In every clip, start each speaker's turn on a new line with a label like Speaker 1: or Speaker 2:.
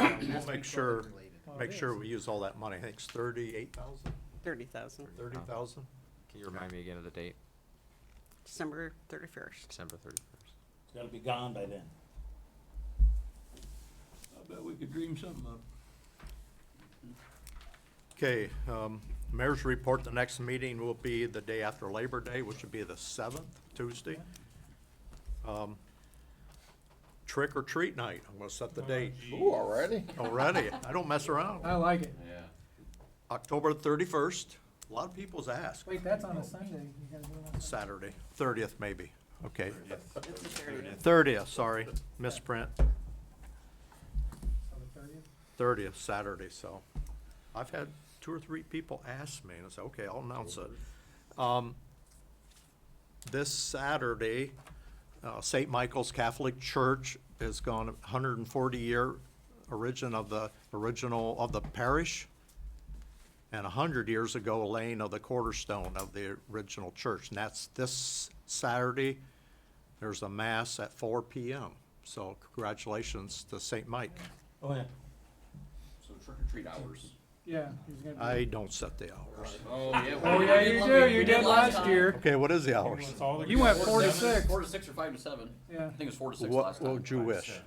Speaker 1: We'll make sure,
Speaker 2: Oh,
Speaker 1: make sure we use all that money. I think it's thirty-eight thousand,
Speaker 3: Thirty thousand,
Speaker 1: thirty thousand?
Speaker 4: Can you remind me again of the date?
Speaker 3: December thirty-first.
Speaker 4: December thirty-first.
Speaker 5: It's gotta be gone by then.
Speaker 6: I bet we could dream something up.
Speaker 1: Okay, um, mayor's report, the next meeting will be the day after Labor Day, which would be the seventh, Tuesday. Um, Trick or treat night, I'm gonna set the date
Speaker 7: Ooh, already?
Speaker 1: already. I don't mess around.
Speaker 8: I like it.
Speaker 7: Yeah.
Speaker 1: October thirty-first, a lot of people's ask,
Speaker 8: Wait, that's on a Sunday. You gotta do it on Sunday.
Speaker 1: Saturday, thirtieth maybe, okay.
Speaker 3: It's the thirtieth.
Speaker 1: Thirtieth, sorry, misprint,
Speaker 8: So the 30th?
Speaker 1: thirtieth, Saturday, so. I've had two or three people ask me, and I said, okay, I'll announce it. Um, This Saturday, uh, St. Michael's Catholic Church has gone hundred and forty year origin of the, original of the parish. And a hundred years ago, laying of the cornerstone of the original church, and that's this Saturday. There's a mass at four P M, so congratulations to St. Mike.
Speaker 5: Oh, yeah.
Speaker 7: So trick or treat hours.
Speaker 8: Yeah. he's gonna do
Speaker 1: I
Speaker 8: it.
Speaker 1: don't set the hours.
Speaker 7: Oh, yeah.
Speaker 8: Uh, Oh, yeah, you do. You did last year.
Speaker 1: Okay, what is the hours?
Speaker 8: You went four to six.
Speaker 7: Four to six or five to seven.
Speaker 8: Yeah.
Speaker 7: I think it was four to six last
Speaker 1: What, oh, what
Speaker 7: time.
Speaker 1: would you wish?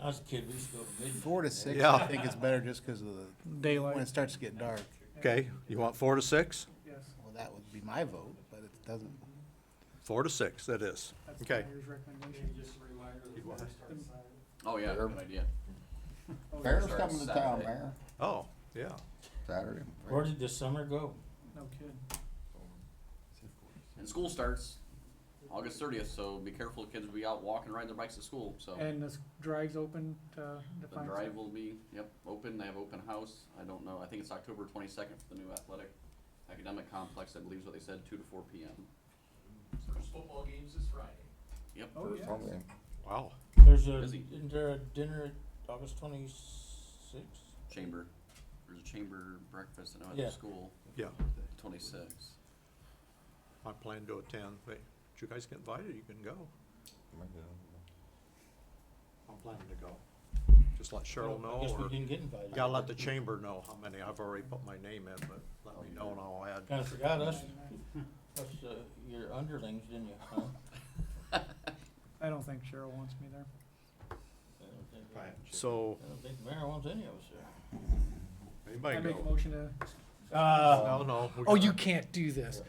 Speaker 5: I was a kid, we used to go to midnight.
Speaker 2: Four to six,
Speaker 1: Yeah.
Speaker 2: I think is better just because of the, when it
Speaker 8: Daylight.
Speaker 2: starts to get dark.
Speaker 1: Okay, you want four to six?
Speaker 8: Yes.
Speaker 2: Well, that would be my vote, but it doesn't.
Speaker 1: Four to six, that is.
Speaker 8: That's the
Speaker 1: Okay.
Speaker 8: mayor's recommendation.
Speaker 7: Oh, yeah, good idea.
Speaker 8: Oh, yeah.
Speaker 2: Mayor's
Speaker 7: Starts
Speaker 2: coming to town,
Speaker 7: Saturday.
Speaker 2: Mayor,
Speaker 1: Oh, yeah.
Speaker 2: Saturday.
Speaker 5: Where did the summer go?
Speaker 8: No kidding.
Speaker 7: And school starts August thirtieth, so be careful, kids will be out walking, riding their bikes to school, so.
Speaker 8: And this drive's open to
Speaker 7: The
Speaker 8: define.
Speaker 7: drive will be, yep, open, they have open house, I don't know, I think it's October twenty-second for the new athletic academic complex, I believe is what they said, two to four P M.
Speaker 9: There's football games this Friday.
Speaker 7: Yep.
Speaker 8: Oh, yeah.
Speaker 1: Wow.
Speaker 5: There's a,
Speaker 7: Busy.
Speaker 5: isn't there a dinner at August twenty-sixth?
Speaker 7: Chamber, there's a chamber breakfast, I know at
Speaker 5: Yeah.
Speaker 7: the school,
Speaker 1: Yeah,
Speaker 7: twenty-six.
Speaker 1: I plan to attend. Wait, did you guys get invited? You can go. I'm planning to go. Just let Cheryl
Speaker 5: I
Speaker 1: know
Speaker 5: guess we
Speaker 1: or
Speaker 5: didn't get invited.
Speaker 1: gotta let the chamber know how many. I've already put my name in, but let me know and I'll add.
Speaker 5: Kinda forgot us, us, uh, your underlings, didn't you, huh?
Speaker 8: I don't think Cheryl wants me there.
Speaker 5: I don't think-
Speaker 1: So,
Speaker 5: I don't think the mayor wants any of us there.
Speaker 1: anybody
Speaker 8: I make a
Speaker 1: go?
Speaker 8: motion to
Speaker 5: Uh,
Speaker 1: No, no. we
Speaker 8: Oh,
Speaker 1: got-
Speaker 8: you can't do this.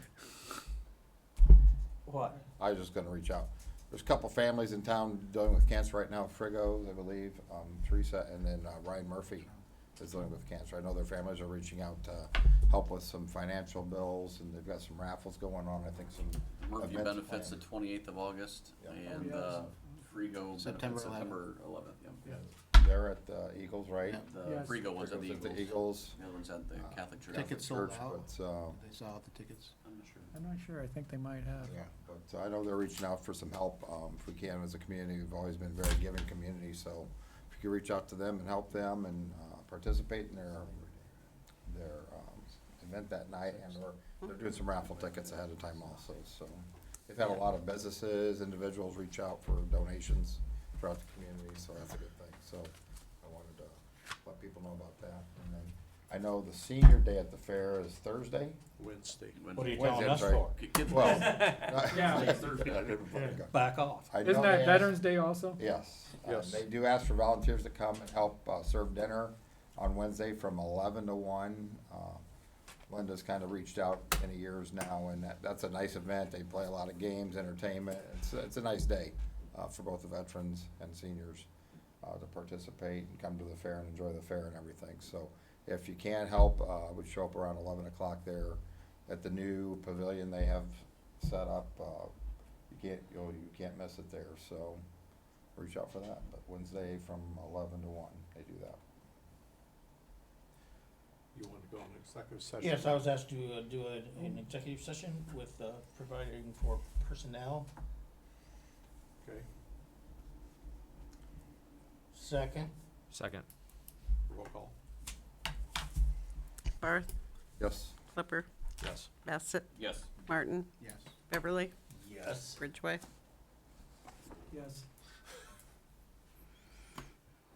Speaker 5: What?
Speaker 10: I was just gonna reach out. There's a couple families in town dealing with cancer right now, Frigo, I believe, um, Teresa, and then uh, Ryan Murphy is dealing with cancer. I know their families are reaching out to help with some financial bills, and they've got some raffles going on, I think some.
Speaker 7: Murphy
Speaker 10: events
Speaker 7: benefits the
Speaker 10: planned.
Speaker 7: twenty-eighth of August,
Speaker 10: Yeah.
Speaker 7: and,
Speaker 8: Oh,
Speaker 7: uh, Frigo
Speaker 2: September
Speaker 7: benefits
Speaker 2: 11th.
Speaker 7: September eleventh, yeah.
Speaker 10: They're at uh, Eagles, right?
Speaker 7: The
Speaker 8: Yes.
Speaker 7: Frigo one's at the
Speaker 10: Frigo's
Speaker 7: Eagles,
Speaker 10: at the Eagles.
Speaker 7: the other one's at the Catholic Church.
Speaker 2: Tickets sold
Speaker 10: Church,
Speaker 2: out.
Speaker 10: But, uh,
Speaker 2: They saw out the tickets.
Speaker 7: I'm not sure.
Speaker 8: I'm not sure. I think they might have.
Speaker 10: yeah, but uh, I know they're reaching out for some help, um, if we can, as a community, we've always been a very giving community, so if you could reach out to them and help them and, uh, participate in their, their, um, event that night, and they're, they're doing some raffle tickets ahead of time also, so. They've had a lot of businesses, individuals reach out for donations throughout the community, so that's a good thing, so I wanted to let people know about that, and then, I know the senior day at the fair is Thursday.
Speaker 1: Wednesday.
Speaker 5: What are you
Speaker 7: Wednesday.
Speaker 5: telling
Speaker 10: Wednesday,
Speaker 5: us
Speaker 10: sorry.
Speaker 5: for?
Speaker 7: Kids-
Speaker 10: Well.
Speaker 8: Yeah.
Speaker 5: Back off.
Speaker 10: I
Speaker 8: Isn't
Speaker 10: know they
Speaker 8: that
Speaker 10: ask-
Speaker 8: Veterans Day also?
Speaker 10: Yes. Uh,
Speaker 1: Yes.
Speaker 10: They do ask for volunteers to come and help uh, serve dinner on Wednesday from eleven to one. Uh, Linda's kind of reached out many years now, and that, that's a nice event. They play a lot of games, entertainment. It's, it's a nice day uh, for both the veterans and seniors uh, to participate and come to the fair and enjoy the fair and everything. So if you can help, uh, we show up around eleven o'clock there at the new pavilion they have set up. Uh, You can't, you know, you can't miss it there, so reach out for that. But Wednesday from eleven to one, they do that.
Speaker 1: You want to go on executive session?
Speaker 5: Yes, I was asked to uh, do a- an executive session with, uh, providing for personnel.
Speaker 1: Okay,
Speaker 5: Second,
Speaker 4: Second.
Speaker 1: roll call.
Speaker 3: Barth,
Speaker 10: Yes.
Speaker 3: Flipper,
Speaker 1: Yes.
Speaker 3: Bassett,
Speaker 7: Yes.
Speaker 3: Martin,
Speaker 2: Yes.
Speaker 3: Beverly,
Speaker 5: yes.
Speaker 3: Ridgway.
Speaker 8: Yes.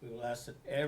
Speaker 5: We will ask that every